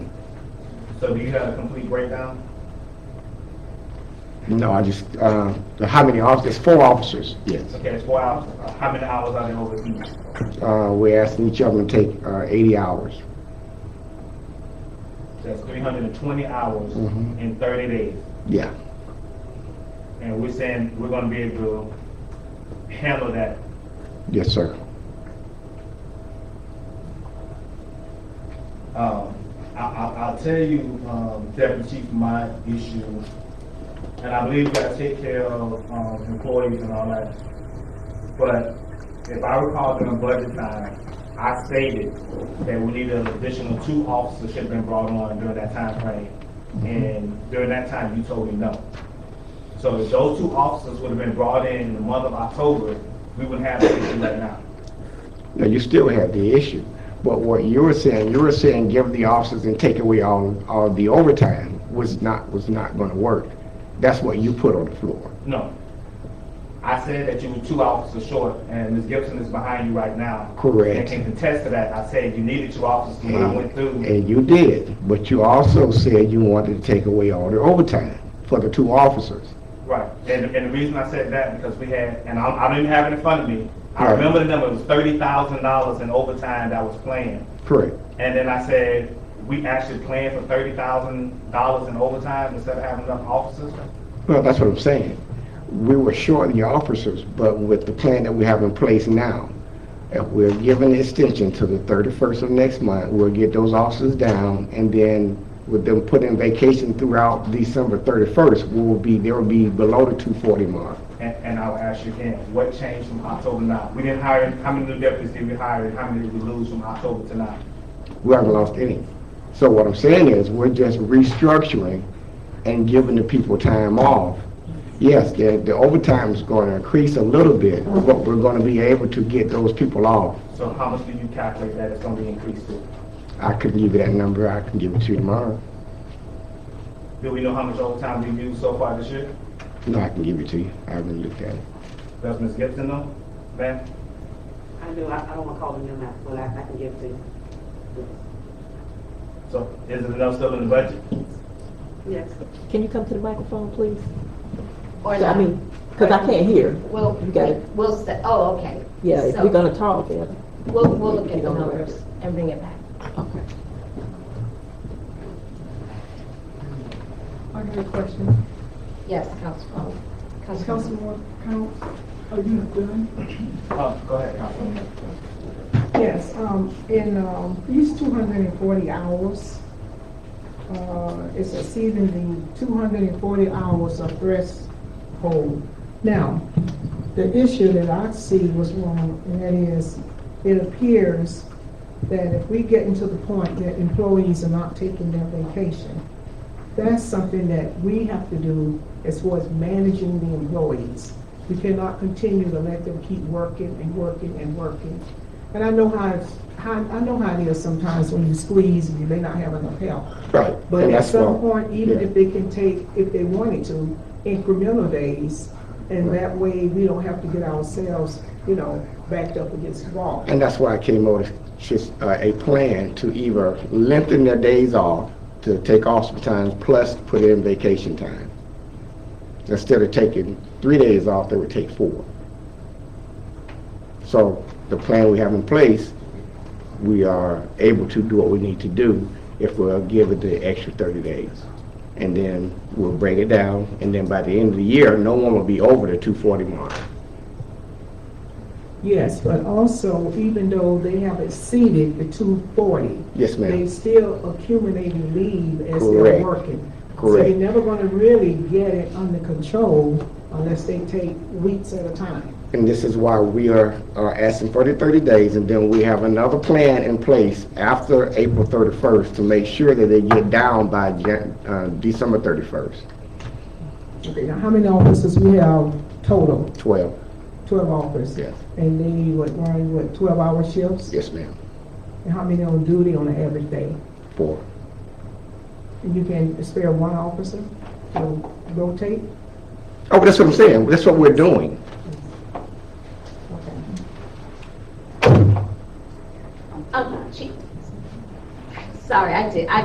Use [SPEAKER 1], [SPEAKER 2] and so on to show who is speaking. [SPEAKER 1] So do you have a complete breakdown?
[SPEAKER 2] No, I just, uh, the- how many officers, four officers, yes.
[SPEAKER 1] Okay, it's four hours, Uh, how many hours are they overseas?
[SPEAKER 2] Uh, we're asking each of them to take, uh, eighty hours.
[SPEAKER 1] That's three hundred and twenty hours
[SPEAKER 2] Mhm.
[SPEAKER 1] in thirty days.
[SPEAKER 2] Yeah,
[SPEAKER 1] And we're saying we're gonna be able to handle that.
[SPEAKER 2] yes, sir.
[SPEAKER 1] Um, I, I, I'll tell you, um, Deputy Chief, my issue, and I believe we gotta take care of, um, employees and all that. But if I recall during budget time, I stated that we need an additional two officers should have been brought on during that time frame. And during that time, you told me no. So if those two officers would have been brought in in the month of October, we wouldn't have this issue right now.
[SPEAKER 2] Now, you still have the issue, but what you were saying, you were saying give the officers and take away all, all the overtime was not, was not gonna work. That's what you put on the floor.
[SPEAKER 1] No. I said that you were two officers short, and Ms. Gibson is behind you right now.
[SPEAKER 2] Correct.
[SPEAKER 1] And can contest to that. I said you needed two officers when I went through.
[SPEAKER 2] And you did, but you also said you wanted to take away all the overtime for the two officers.
[SPEAKER 1] Right. And, and the reason I said that, because we had, and I, I don't even have it in front of me. I
[SPEAKER 2] Right.
[SPEAKER 1] remember the number, it was thirty thousand dollars in overtime that was planned.
[SPEAKER 2] Correct.
[SPEAKER 1] And then I said, we actually planned for thirty thousand dollars in overtime instead of having enough officers?
[SPEAKER 2] Well, that's what I'm saying. We were short the officers, but with the plan that we have in place now, if we're given an extension to the 31st of next month, we'll get those officers down, and then with them put in vacation throughout December 31st, we will be, they will be below the 240 mark.
[SPEAKER 1] And, and I'll ask you again, what changed from October to now? We didn't hire, how many new deputies did we hire, and how many did we lose from October to now?
[SPEAKER 2] We haven't lost any. So what I'm saying is, we're just restructuring and giving the people time off. Yes, the the overtime is going to increase a little bit, but we're going to be able to get those people off.
[SPEAKER 1] So how much do you calculate that it's gonna be increased to?
[SPEAKER 2] I couldn't give you that number, I can give it to you tomorrow.
[SPEAKER 1] Do we know how much overtime we've used so far this year?
[SPEAKER 2] No, I can give it to you, I haven't looked at it.
[SPEAKER 1] Does Ms. Gibson know? Ma'am?
[SPEAKER 3] I do, I, I don't wanna call them them out, but I, I can give it to you.
[SPEAKER 1] So is it enough still in the budget?
[SPEAKER 3] Yes.
[SPEAKER 4] Can you come to the microphone, please?
[SPEAKER 5] Or
[SPEAKER 4] I
[SPEAKER 5] not?
[SPEAKER 4] mean, because I can't hear.
[SPEAKER 5] Well,
[SPEAKER 4] You got it.
[SPEAKER 5] we'll, say- oh, okay.
[SPEAKER 4] Yeah, if
[SPEAKER 5] So,
[SPEAKER 4] we're gonna talk, yeah.
[SPEAKER 5] We'll, we'll look
[SPEAKER 4] You
[SPEAKER 5] at the
[SPEAKER 4] don't know.
[SPEAKER 5] numbers and bring it back.
[SPEAKER 4] Okay.
[SPEAKER 6] I got a question.
[SPEAKER 5] Yes, Councilwoman. Councilwoman.
[SPEAKER 6] Councilwoman Counts, are you done?
[SPEAKER 1] Uh, go ahead, Councilwoman.
[SPEAKER 6] Yes, um, in, um, these two hundred and forty hours, uh, is exceeding the two hundred and forty hours of threshold. Now, the issue that I see was wrong, and that is, it appears that if we get into the point that employees are not taking their vacation, that's something that we have to do as far as managing the employees. We cannot continue to let them keep working and working and working. And I know how, it's- how, I know how it is sometimes when you squeeze and you may not have enough help.
[SPEAKER 2] Right.
[SPEAKER 6] But
[SPEAKER 2] and
[SPEAKER 6] at
[SPEAKER 2] that's
[SPEAKER 6] some
[SPEAKER 2] why-
[SPEAKER 6] point, even
[SPEAKER 2] yeah.
[SPEAKER 6] if they can take, if they wanted to, incremental days, and that way we don't have to get ourselves, you know, backed up against the wall.
[SPEAKER 2] And that's why I came up with just, uh, a plan to either lengthen their days off, to take off some time, plus put in vacation time. Instead of taking three days off, they would take four. So the plan we have in place, we are able to do what we need to do if we're given the extra thirty days. And then we'll break it down, and then by the end of the year, no one will be over the two forty mark.
[SPEAKER 6] Yes, but also, even though they have exceeded the two forty,
[SPEAKER 2] Yes,
[SPEAKER 6] they
[SPEAKER 2] ma'am.
[SPEAKER 6] still accumulating leave as
[SPEAKER 2] Correct.
[SPEAKER 6] they're working. So
[SPEAKER 2] Correct.
[SPEAKER 6] you're never gonna really get it under control unless they take weeks at a time.
[SPEAKER 2] And this is why we are, are asking for the thirty days, and then we have another plan in place after April thirty-first to make sure that they get down by Jan, uh, December thirty-first,
[SPEAKER 6] Okay, now how many officers we have total?
[SPEAKER 2] twelve.
[SPEAKER 6] Twelve officers?
[SPEAKER 2] Yes.
[SPEAKER 6] And they would run, what, twelve-hour shifts?
[SPEAKER 2] Yes, ma'am,
[SPEAKER 6] And how many on duty on an average day?
[SPEAKER 2] four.
[SPEAKER 6] And you can spare one officer to rotate?
[SPEAKER 2] Oh, that's what I'm saying, that's what we're doing.
[SPEAKER 6] Okay.
[SPEAKER 5] Um, Chief. Sorry, I did, I